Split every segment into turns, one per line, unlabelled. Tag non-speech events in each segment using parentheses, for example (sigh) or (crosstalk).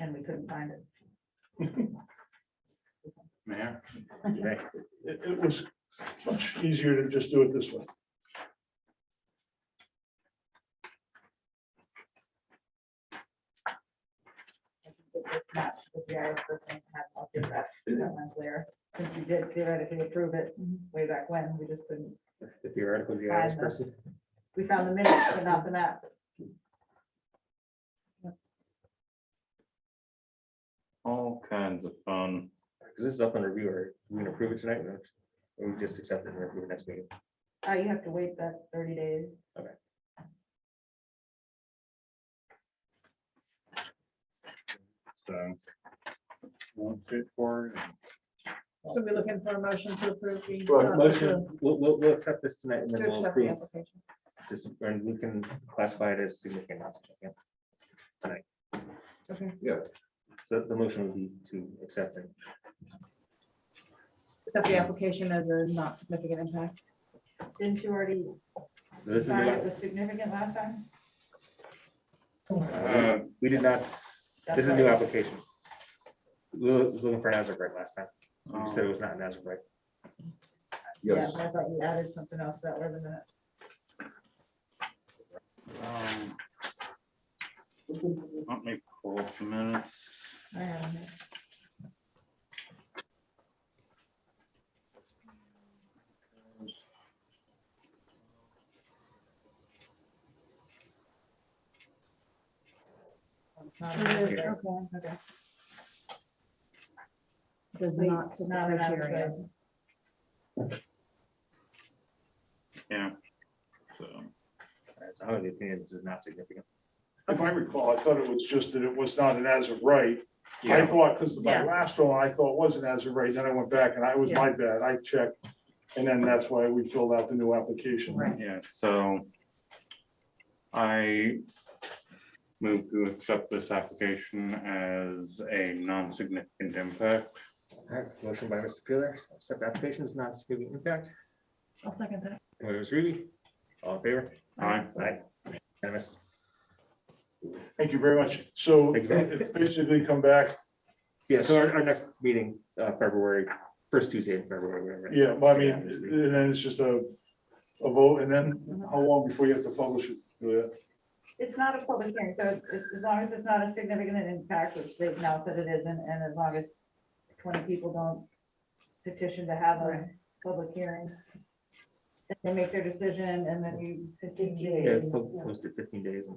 and we couldn't find it.
Mayor,
It, it was much easier to just do it this way.
I think that this map with the arrow person had all of that, that one's there. Since you did theoretically approve it way back when, we just couldn't,
The theoretical GIS
Five.
person.
we found the minutes, but not the map.
all kinds of fun.
Because this is up on review, or we can approve it tonight, or we just accept it and approve it next meeting.
Uh, you have to wait that thirty days.
Okay.
So. Won't fit for.
So we're looking for a motion to approve the.
Right,
uh,
motion.
We'll, we'll, we'll accept this tonight and
To
then
to
we'll
accept the
approve,
application.
this, and we can classify it as significant. not significant.
Okay,
So the motion would be to accept it.
accept the application as a not significant impact.
Didn't you already
This is,
sign it
the-
was significant last time?
uh, we did not,
That's
this is a
right.
new application. We was looking for an as of right last time. You
Oh.
said it
Um,
was not an as of right.
Yeah, I thought you added something else that were the minutes.
um, Let me pull up the minutes.
I have it. It's not
It is,
in
Okay.
there.
okay.
Okay.
Does not fit the
Not an
criteria.
Yeah. So
Alright, So I'm of the opinion this is not significant.
If I recall, I thought it was just that it was not an as of right. I
Yeah,
thought, because my
Yeah.
last one, I thought was an as of right, then I went back and I was my bad, I checked. And then that's why we filled out the new application.
Right.
Yeah, so I move to accept this application as a non-significant impact.
Alright, motion by Mr. Peeler, accept application is not significant impact.
I'll second that.
Wait, it was Rudy. All in favor?
Aye.
Aye. Unanimous.
Thank you very much. So
Thank you.
it- basically come back,
Yeah, so our, our next meeting, uh, February, first Tuesday in February, whatever.
yeah, well, I mean, and then it's just a, a vote, and then how long before you have to publish it? Yeah.
It's not a public hearing, so it's- it's- as long as it's not a significant impact, which they've now said it isn't, and as long as twenty people don't petition to have a public hearing, then they make their decision and then you fifteen
Yeah,
days.
it's po- posted fifteen days.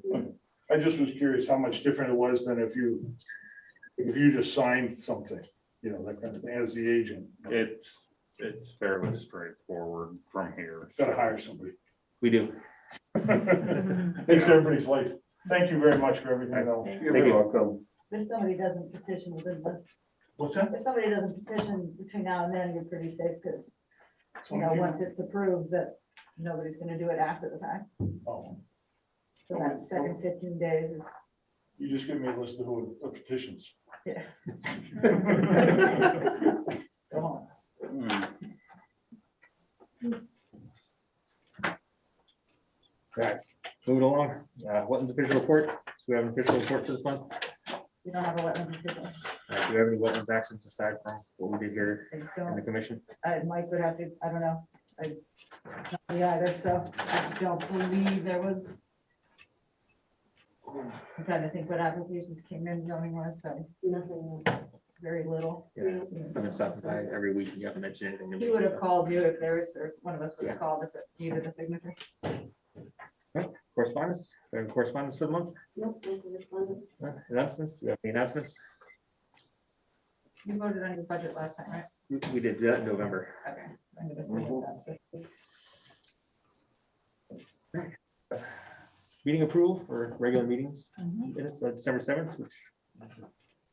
I just was curious how much different it was than if you, if you just signed something, you know, that kind of, thing, as the agent.
It's, it's fairly straightforward from here.
Gotta hire
(laughs)
somebody.
We do.
Makes everybody's life. Thank you very much for everything though.
Thank you. welcome.
If somebody doesn't petition within the,
What's that?
if somebody doesn't petition between now and then, you're pretty safe, because, you know, once it's approved, that nobody's gonna do it after the fact.
Oh,
So that second fifteen days is,
You just give me a list of who, of petitions.
yeah.
(laughs)
(laughs)
Come on.
Hmm,
Right, moving along, uh, Wetlands official report, so we have an official report for this month.
You don't have a wetland petition.
Uh, do we have any wetlands actions aside from what we did here
I
in
don't
the commission?
uh, Mike would have to, I don't know, I, yeah, that's, so, I don't believe there was. I'm trying to think what applications came in, zoning was, so
Nothing.
very little.
Yeah, I've been stopping by every week, you haven't mentioned anything. to me.
He would have called you if there was, or one of us would
Yeah.
have called if it needed a signature.
Correspondence, Do we have correspondence for the month,
Nope, no correspondence.
Uh, announcements, do we have any announcements?
You voted on your budget last time, right?
We we did that in November.
Okay. I'm gonna forget that.
Meeting approval for regular meetings,
Mhm.
minutes of December seventh, which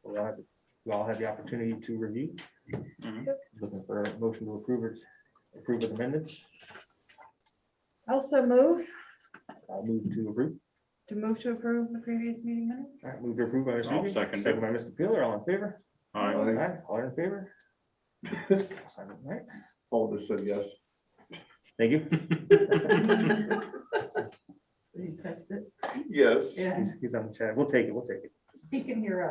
we all have- we all had the opportunity to review.
mhm.
Looking for a motion to approve it, approve with amendments,
Also move
I'll move to approve,
to move to approve the previous meeting minutes.
All right, move to approve by Mr.
I'll
Regan,
second it.
Second by Mr. Peeler, all in favor?
Aye.
Aye, All in
(laughs)
favor? Sign it, right.
Paul just said yes.
Thank you. (laughs)
You touched it?
Yes.
Yeah,
He's- He's on the chat, we'll take it, we'll take it.
he can hear us.